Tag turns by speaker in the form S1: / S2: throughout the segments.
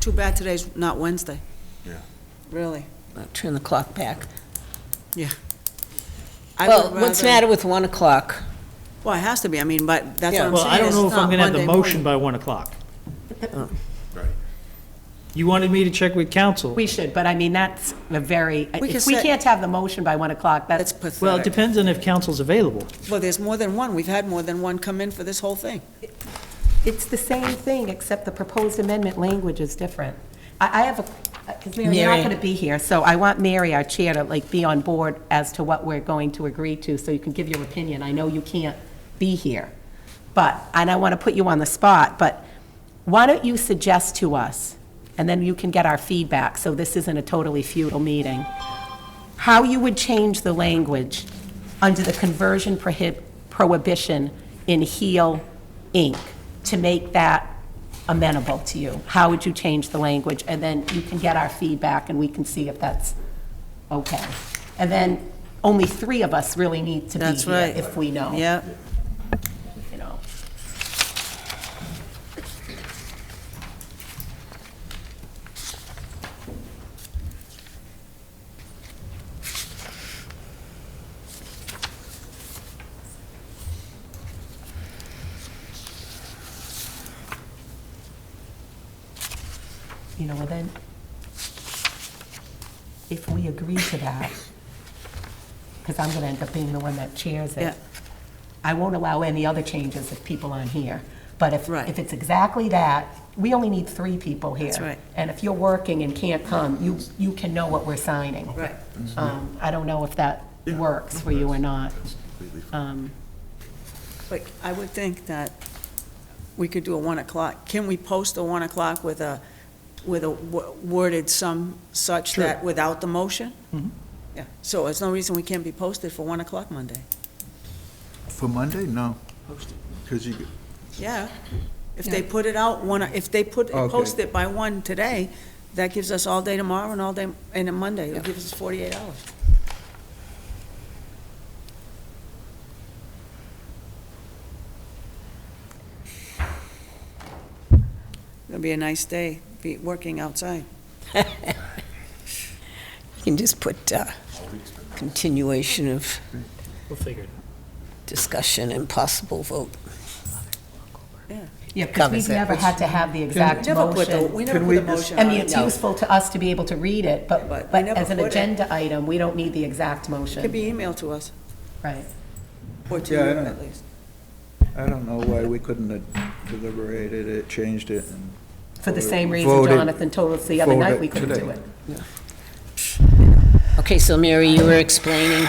S1: Too bad today's not Wednesday.
S2: Yeah.
S1: Really?
S3: I'll Turn the clock back.
S1: I
S3: Well,
S1: would
S3: what's the
S1: rather-
S3: matter with 1 o'clock?
S1: Well, it has to be, I mean, but that's what I'm saying.
S4: Well, I don't
S1: is
S4: know if
S1: it's
S4: I'm
S1: not
S4: gonna have the
S1: Monday morning.
S4: motion by one o'clock.
S2: Right.
S4: You wanted me to check with council.
S5: We should, but I mean, that's a very,
S1: We could
S5: if we
S1: set-
S5: can't have the motion by 1 o'clock,
S1: That's
S5: that's,
S4: Well, it
S1: pathetic.
S4: depends on if council's available.
S1: Well, there's more than one, we've had more than one come in for this whole thing.
S5: it's the same thing, except the proposed amendment language is different. I, I have a, because Mary, you're
S3: Mary.
S5: not going to be here, so I want Mary, our chair, to like be on board as to what we're going to agree to, so you can give your opinion. I know you can't be here, but, and I want to put you on the spot, but why don't you suggest to us, and then you can get our feedback, so this isn't a totally futile meeting, how you would change the language under the conversion prohib- prohibition in Heal, Inc., to make that amenable to you? How would you change the language? And then you can get our feedback, and we can see if that's okay. And then only three of us really need to be
S1: That's
S5: here
S1: right.
S5: if we know,
S1: Yeah,
S5: you know. You know, well then, if we agree to that, because I'm going to end up being the one that chairs
S1: Yeah.
S5: it, I won't allow any other changes if people aren't here. But if,
S1: Right.
S5: if it's exactly that, we only need three people here.
S1: That's right.
S5: And if you're working and can't come, you, you can know what we're signing.
S1: right.
S5: Um, I don't know if that works for you or not.
S2: Completely fine.
S5: Um,
S1: But I would think that we could do a 1 o'clock. Can we post a 1 o'clock with a, with a wo- worded some such
S4: Sure.
S1: that without the motion?
S4: Mhm.
S1: Yeah, so there's no reason we can't be posted for 1 o'clock Monday.
S2: For Monday, no. Because you,
S1: Yeah. If they put it out, one, if they put,
S2: Okay.
S1: post it by 1 today, that gives us all day tomorrow and all day, and then Monday. It gives us 48 hours. It'll be a nice day, be working outside.
S3: You can just put uh, continuation of
S4: We'll figure it out.
S3: discussion and possible vote.
S5: Yeah, because
S3: Covers
S5: we've
S3: it.
S5: never had to have the exact
S1: Never put the,
S5: motion.
S1: we never
S2: Can we
S1: put a
S2: just-
S1: motion
S5: I
S1: on
S5: mean,
S1: it.
S5: it's
S3: No.
S5: useful to us to be able to read it, but,
S1: But we
S5: but
S1: never
S5: as an
S1: put it.
S5: agenda item, we don't need the exact
S1: It could
S5: motion.
S1: be emailed to us,
S5: Right.
S1: or to you
S2: Yeah, I don't-
S1: at least.
S2: I don't know why we couldn't have deliberated it, changed it. and
S5: For the same
S2: voted-
S5: reason
S2: voted-
S5: Jonathan told us the other
S2: voted
S5: night we couldn't do
S2: today.
S5: it.
S3: Okay, so Mary, you were explaining,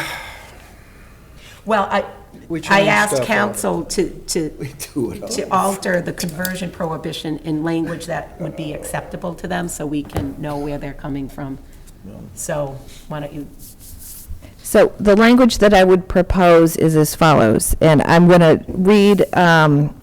S5: Well, I,
S2: We
S5: I
S2: changed
S5: asked
S2: stuff.
S5: council to, to,
S2: We do it all.
S5: to alter the conversion prohibition in language that would be acceptable to them, so we can know where they're coming from. So, why don't you,
S6: So the language that I would propose is as follows, and I'm going to read, um,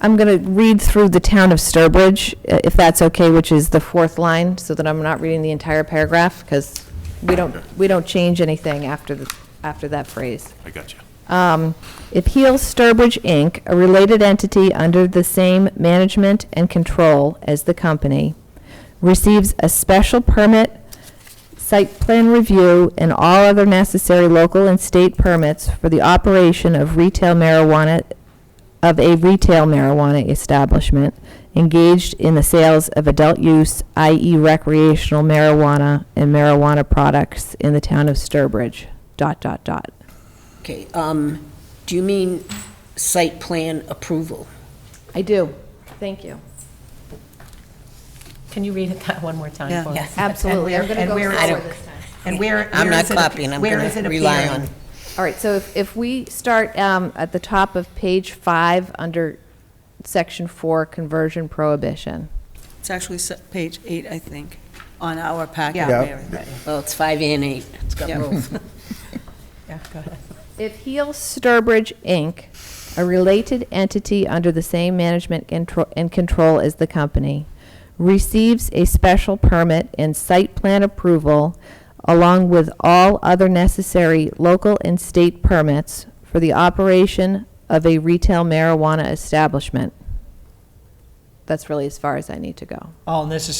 S6: I'm going to read through the town of Sturbridge, i- if that's okay, which is the fourth line, so that I'm not reading the entire paragraph, because we don't, we don't change anything after, the after that phrase.
S7: I got you.
S6: Um, If Heel Sturbridge, Inc., a related entity under the same management and control as the company, receives a special permit, site plan review, and all other necessary local and state permits for the operation of retail marijuana, of a retail marijuana establishment engaged in the sales of adult use, i.e. recreational marijuana and marijuana products in the town of Sturbridge, dot, dot, dot.
S3: okay, um, do you mean site plan approval?
S6: I do. Thank you.
S5: can you read it that one more time
S1: Yeah.
S5: for us?
S6: Absolutely. I'm
S5: And
S6: gonna go
S5: where-
S6: slower
S5: and where- And where?
S3: I'm
S5: where
S3: not
S5: is it ap-
S3: copying, I'm
S5: where
S3: gonna
S5: is it
S3: rely
S5: appearing?
S3: on-
S6: All right, so if, if we start um, at the top of page five, under section four, conversion prohibition.
S1: It's actually se- page eight, I think, on our packet,
S2: Yeah.
S1: Mary.
S3: Well, it's five and eight, it's got
S1: Yeah.
S3: both.
S5: Yeah, go ahead.
S6: If Heel Sturbridge, Inc., a related entity under the same management contro- and control as the company, receives a special permit and site plan approval along with all other necessary local and state permits for the operation of a retail marijuana establishment. That's really as far as I need to go.
S4: All necessary